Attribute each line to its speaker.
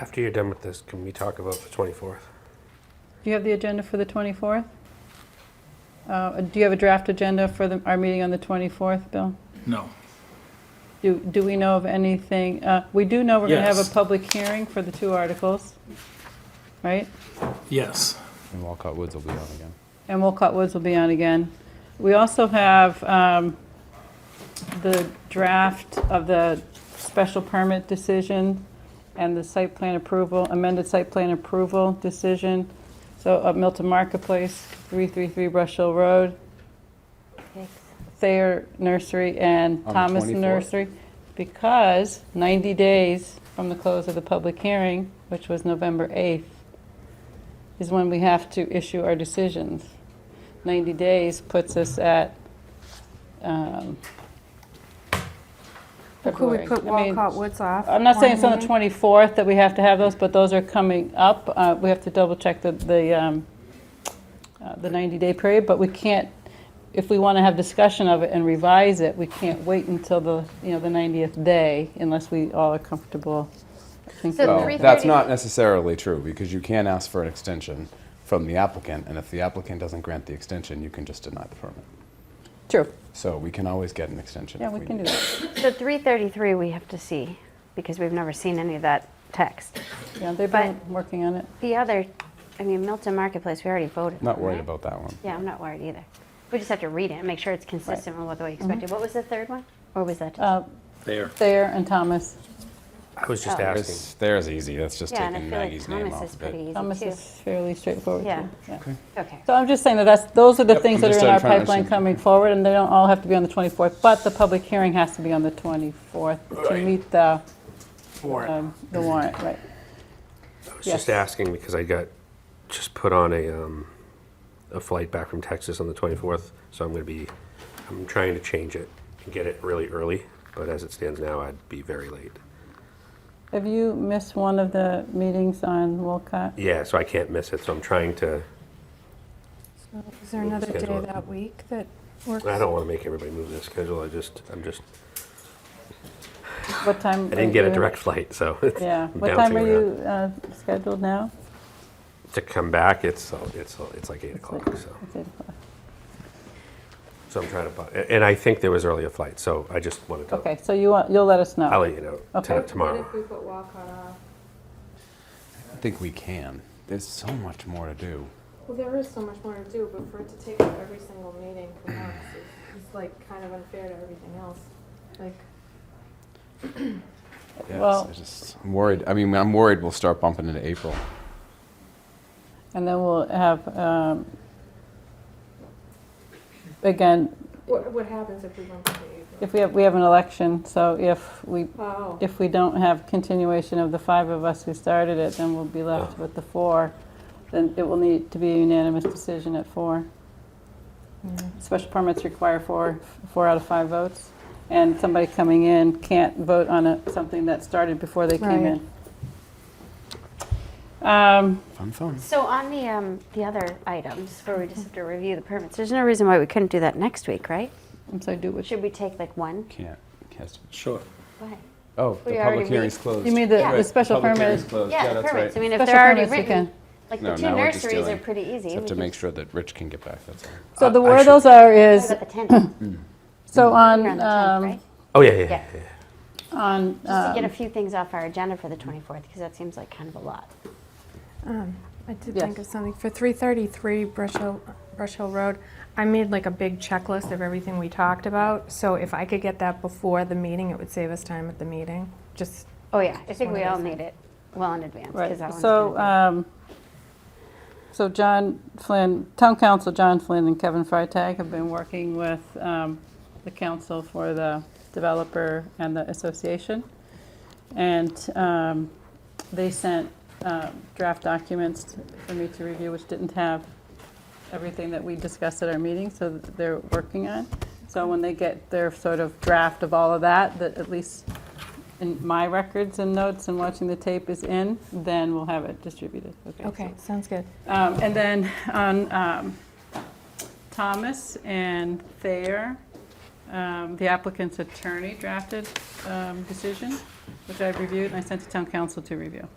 Speaker 1: After you're done with this, can we talk about the 24th?
Speaker 2: Do you have the agenda for the 24th? Uh, Do you have a draft agenda for the- our meeting on the 24th, Bill?
Speaker 3: No.
Speaker 2: Do do we know of anything? uh, We do know we're going to have
Speaker 3: Yes.
Speaker 2: a public hearing for the two articles, right?
Speaker 3: Yes.
Speaker 4: And Walcott Woods will be on again.
Speaker 2: And Wolcott Woods will be on again. We also have um, the draft of the special permit decision and the site plan approval, amended site plan approval decision. So up Milton Marketplace, 333 Brush Hill Road, Thayer Nursery and
Speaker 4: On the
Speaker 2: Thomas
Speaker 4: 24th.
Speaker 2: Nursery. Because 90 days from the close of the public hearing, which was November 8th, is when we have to issue our decisions. 90 days puts us at um,
Speaker 5: Well, Could we
Speaker 2: February.
Speaker 5: put
Speaker 2: I mean,
Speaker 5: Walcott Woods off?
Speaker 2: I'm not saying it's on the
Speaker 5: one
Speaker 2: 24th that we have to have those, but those are coming up. Uh, We have to double-check the, the um, uh, the 90-day period, but we can't, if we want to have discussion of it and revise it, we can't wait until the, you know, the 90th day unless we all are comfortable thinking
Speaker 5: So
Speaker 2: that.
Speaker 4: Well,
Speaker 5: three-
Speaker 4: that's
Speaker 5: 3:30.
Speaker 4: not necessarily true because you can ask for an extension from the applicant, and if the applicant doesn't grant the extension, you can just deny the permit.
Speaker 2: True,
Speaker 4: So we can always get an extension.
Speaker 2: yeah,
Speaker 4: if
Speaker 2: we can do
Speaker 4: need.
Speaker 2: that.
Speaker 6: So 333, we have to see, because we've never seen any of that text.
Speaker 2: Yeah, they've been working on it.
Speaker 6: The other, I mean, Milton Marketplace, we already voted.
Speaker 4: Not
Speaker 6: on,
Speaker 4: worried
Speaker 6: right?
Speaker 4: about that one.
Speaker 6: Yeah, I'm not worried either. We just have to read it and make sure it's consistent with what we
Speaker 4: Mm-hmm.
Speaker 6: expected. What was the third one? Or was that? just-
Speaker 2: Uh,
Speaker 3: There.
Speaker 2: Thayer and Thomas.
Speaker 1: I was just
Speaker 6: Oh.
Speaker 1: asking.
Speaker 4: There's, there's easy. That's just
Speaker 6: Yeah, and I
Speaker 4: taking
Speaker 6: feel like
Speaker 4: Maggie's name
Speaker 6: Thomas
Speaker 4: off.
Speaker 6: is
Speaker 4: of it.
Speaker 6: pretty
Speaker 2: Thomas
Speaker 6: easy
Speaker 2: is fairly straightforward,
Speaker 6: Yeah.
Speaker 2: too. Yeah.
Speaker 6: too. Okay.
Speaker 2: So I'm just saying that that's, those are the
Speaker 4: Yep,
Speaker 2: things that
Speaker 4: I'm
Speaker 2: are
Speaker 4: just
Speaker 2: in our
Speaker 4: trying to
Speaker 2: pipeline
Speaker 4: understand.
Speaker 2: coming forward, and they don't all have to be on the 24th, but the public hearing has to be on the 24th to
Speaker 1: Right.
Speaker 2: meet the,
Speaker 3: For it.
Speaker 2: um, the warrant, right?
Speaker 1: I was
Speaker 2: yes.
Speaker 1: just asking because I got just put on a um, a flight back from Texas on the 24th, so I'm going to be I'm trying to change it and get it really early. But as it stands now, I'd be very late.
Speaker 2: Have you missed one of the meetings on Wolcott?
Speaker 1: Yeah, so I can't miss it. So I'm trying to.
Speaker 5: Is there another day
Speaker 1: Schedule it.
Speaker 5: that week that works?
Speaker 1: I don't want to make everybody move their schedule. I just I'm just
Speaker 2: What time?
Speaker 1: I didn't get a direct flight, so it's,
Speaker 2: Yeah,
Speaker 1: I'm
Speaker 2: what time
Speaker 1: bouncing
Speaker 2: are
Speaker 1: around.
Speaker 2: you uh, scheduled now?
Speaker 1: to come back. It's it's it's like eight o'clock. So.
Speaker 2: It's eight o'clock.
Speaker 1: So I'm trying to, bu- and I think there was earlier flight, so I just wanted to,
Speaker 2: Okay, so you want, you'll let us know?
Speaker 1: Oh. I'll let you know
Speaker 2: Okay.
Speaker 1: to- tomorrow.
Speaker 5: we put Walcott off?
Speaker 4: I think we can. There's so much more to do.
Speaker 7: Well, there is so much more to do, but for it to take up every single meeting for us is, is like kind of unfair to everything else. Like,
Speaker 4: Yes,
Speaker 2: Well-
Speaker 4: I just, I'm worried. I mean, I'm worried we'll start bumping into April.
Speaker 2: And then we'll have, um, again,
Speaker 7: what, what happens if we bump into April?
Speaker 2: if we have, we have an election, so if we
Speaker 7: Oh,
Speaker 2: If we don't have continuation of the five of us who started it, then we'll be left with the four. Then it will need to be a unanimous decision at four. Special permits require four, four out of five votes. And somebody coming in can't vote on a, something that started before they came
Speaker 5: Right.
Speaker 2: in. Um,
Speaker 4: Fun, fun.
Speaker 6: So on the, um, the other items, where we just have to review the permits, there's no reason why we couldn't do that next week, right?
Speaker 2: I'm sorry, do which, you
Speaker 6: Should we take like one?
Speaker 4: Can't. can't
Speaker 3: Sure.
Speaker 6: Why?
Speaker 4: oh,
Speaker 6: We
Speaker 4: the
Speaker 6: already
Speaker 4: public hearing's
Speaker 6: read-
Speaker 4: closed.
Speaker 2: mean the, the
Speaker 6: Yeah.
Speaker 2: special
Speaker 4: public
Speaker 2: permit?
Speaker 4: hearing's closed.
Speaker 6: Yeah,
Speaker 4: that's
Speaker 6: permits. I
Speaker 4: right.
Speaker 6: mean, if
Speaker 2: Special
Speaker 6: they're already
Speaker 2: permits we
Speaker 6: written,
Speaker 2: can.
Speaker 6: like
Speaker 4: No,
Speaker 6: the two
Speaker 4: now we're just
Speaker 6: nurseries are
Speaker 4: dealing-
Speaker 6: pretty easy.
Speaker 4: Just have
Speaker 6: We
Speaker 4: to
Speaker 6: can
Speaker 4: make
Speaker 6: just-
Speaker 4: sure that Rich can get back. That's all.
Speaker 2: So the
Speaker 1: I
Speaker 2: where
Speaker 1: should-
Speaker 2: those are
Speaker 6: What
Speaker 2: is,
Speaker 6: about the 10th?
Speaker 2: so on,
Speaker 6: You're on the 10th,
Speaker 2: um,
Speaker 6: right?
Speaker 1: oh, yeah, yeah, yeah.
Speaker 6: Yeah.
Speaker 1: yeah.
Speaker 2: on,
Speaker 6: Just to
Speaker 2: um,
Speaker 6: get a few things off our agenda for the 24th, because that seems like kind of a lot.
Speaker 5: Um, I did
Speaker 2: Yes.
Speaker 5: think of something. For 333 Brush Hill, Brush Hill Road, I made like a big checklist of everything we talked about. So if I could get that before the meeting, it would save us time at the meeting. Just,
Speaker 6: Oh, yeah, I think
Speaker 5: one
Speaker 6: we
Speaker 5: of
Speaker 6: all
Speaker 5: those
Speaker 6: need it well in advance. 'cause that
Speaker 2: Right,
Speaker 6: one's
Speaker 2: so,
Speaker 6: gonna
Speaker 2: um, so John Flynn, Town Council John Flynn and Kevin Freitag have been working with um, the council for the developer and the association. And um, they sent uh, draft documents for me to review, which didn't have everything that we discussed at our meeting, so that they're working on. So when they get their sort of draft of all of that, that at least in my records and notes and watching the tape is in, then we'll have it distributed.
Speaker 5: okay, sounds good.
Speaker 2: Um, And then on um, Thomas and Thayer, um, the applicant's attorney drafted um, decision, which I reviewed and I sent to town council to review.